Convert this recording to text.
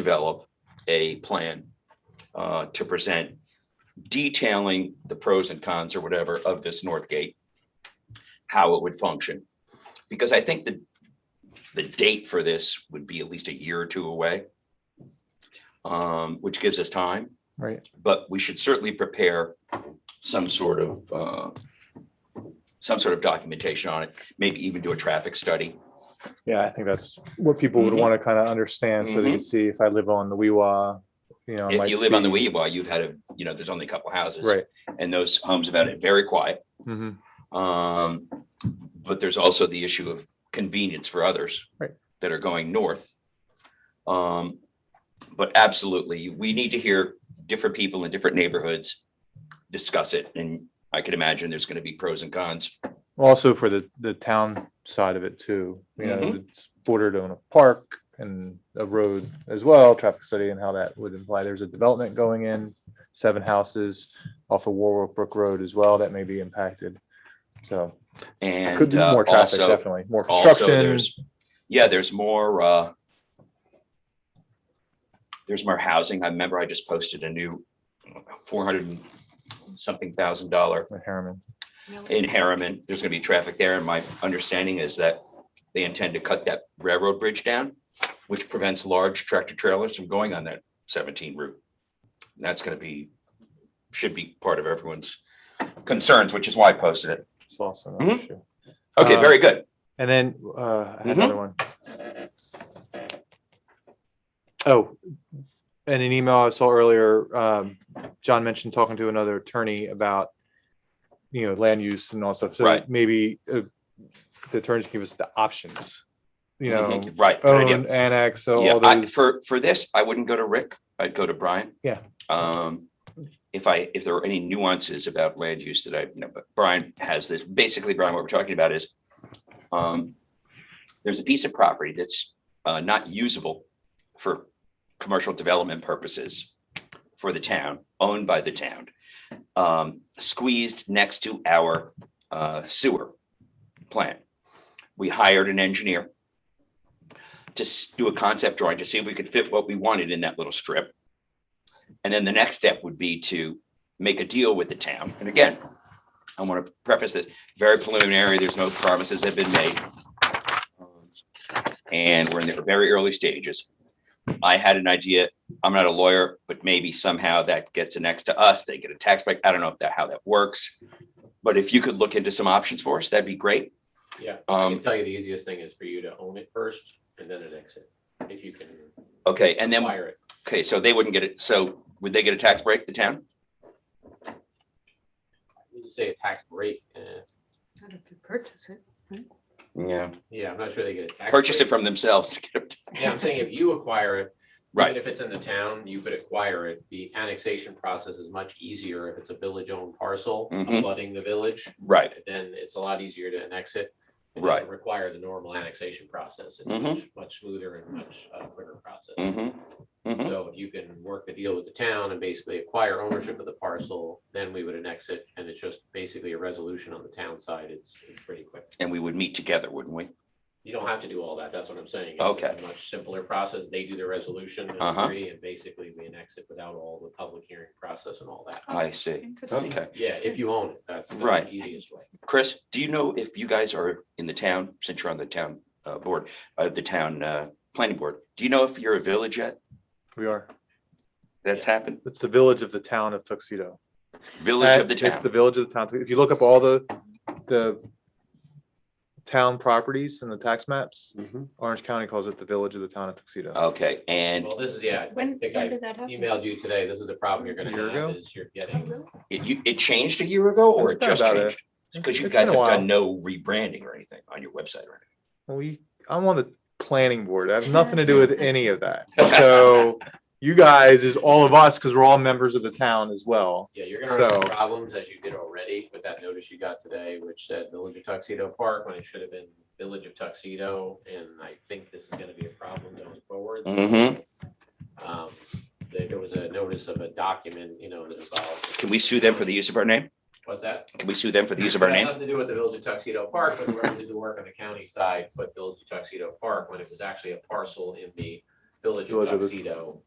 develop a plan uh, to present detailing the pros and cons or whatever of this North Gate, how it would function. Because I think the, the date for this would be at least a year or two away, um, which gives us time. Right. But we should certainly prepare some sort of, uh, some sort of documentation on it, maybe even do a traffic study. Yeah, I think that's what people would Mhm. want to kind of understand so they can see if I live on the Weewa, you know. Mm-hmm. I If might you live on the see- Weeaboo, you've had a, you know, there's only a couple houses. Right. And those homes have had it very quiet. Mhm. Um, but there's also the issue of convenience for others. Right. That are going north. Um, but absolutely, we need to hear different people in different neighborhoods discuss it. And I can imagine there's gonna be pros and cons. Also for the, the town side of it too, you know, Mm-hmm. it's bordered on a park and a road as well, traffic study and how that would imply there's a development going in, seven houses off of Warwick Brook Road as well, that may be impacted. So And could be uh, more traffic, also, definitely, more also construction. there's, yeah, there's more, uh, there's more housing. I remember I just posted a new four hundred and something thousand dollar with Harriman. in Harriman. There's gonna be traffic there, and my understanding is that they intend to cut that railroad bridge down, which prevents large tractor trailers from going on that seventeen route. And That's gonna be, should be part of everyone's concerns, which is why I posted it. It's also an Mhm. issue. Okay, Uh, very good. And then uh, I had Mhm. another one. Oh, and an email I saw earlier, um, John mentioned talking to another attorney about, you know, land use and all stuff. So Right. maybe uh, the attorneys give us the options, you know, Mhm, Right. good idea. own, annex, so Yeah, all I, those. for, for this, I wouldn't go to Rick. I'd go to Brian. Yeah. Um, if I, if there are any nuances about land use that I, you know, but Brian has this, basically Brian, what we're talking about is, um, there's a piece of property that's, uh, not usable for commercial development purposes for the town, owned by the town, um, squeezed next to our, uh, sewer plant. We hired an engineer to s- do a concept drawing to see if we could fit what we wanted in that little strip. And then the next step would be to make a deal with the town. And again, I want to preface this, very preliminary, there's no promises have been made. And we're in the very early stages. I had an idea, I'm not a lawyer, but maybe somehow that gets annexed to us, they get a tax break. I don't know if that, how that works. But if you could look into some options for us, that'd be great. Yeah, I Um, can tell you the easiest thing is for you to own it first and then annex it, if you can okay, and then acquire it. Okay, so they wouldn't get it, so would they get a tax break, the town? I wouldn't say a tax break, eh, How did you purchase it? Yeah. yeah, I'm not sure they get a tax. Purchase it break. from themselves. Yeah, I'm saying if you acquire it. Right. even If it's in the town, you could acquire it. The annexation process is much easier if it's a village-owned parcel, Mhm. flooding the village. Right, Then it's a lot easier to annex it. It Right. doesn't Require the normal annexation process. It's Mhm. much, much smoother and much uh, quicker process. mm-hmm, mm-hmm, So if you can work the deal with the town and basically acquire ownership of the parcel, then we would annex it, and it's just basically a resolution on the town side, it's it's pretty quick. and we would meet together, wouldn't we? You don't have to do all that, that's what I'm saying. It's- Okay. It's a much simpler process, they do the resolution and Uh-huh. agree, and basically we annex it without all the public hearing process and all that. I see. Interesting. Okay, Yeah, if you own it, that's that's Right. the easiest way. Chris, do you know if you guys are in the town, since you're on the town uh board, uh the town uh planning board, do you know if you're a village yet? We are, That's happened? it's the village of the town of Tuxedo. Village of the At- Uh, It's the town, village of the town. If you look up all the, the town properties and the tax maps, Orange County calls it the village of the town of Tuxedo. okay, and Well, this is, yeah, I When, think when I did that happen? emailed you today, this is the problem you're Year gonna ago? have, is you're Oh, getting, really? it you, it changed a year ago or it It's been just about a- changed? Because you It's guys been have a done no while. rebranding or anything on your website or We, I'm on the planning board. I have nothing to do with any of that. So you guys is all of us because we're all members of the town as well. Yeah, you're gonna So- have problems as you did already with that notice you got today, which said Village of Tuxedo Park, when it should have been Village of Tuxedo, and I think this is gonna be a problem going forward. anything. Mm-hmm. Um, There there was a notice of a document, you know, that involved. Can we sue them for the use of our name? What's that? Can we sue them for the use of our It had name? Nothing to do with the Village of Tuxedo Park, but we're gonna do the work on the county side, but Village of Tuxedo Park, when it was actually a parcel in the Village Village of of- Tuxedo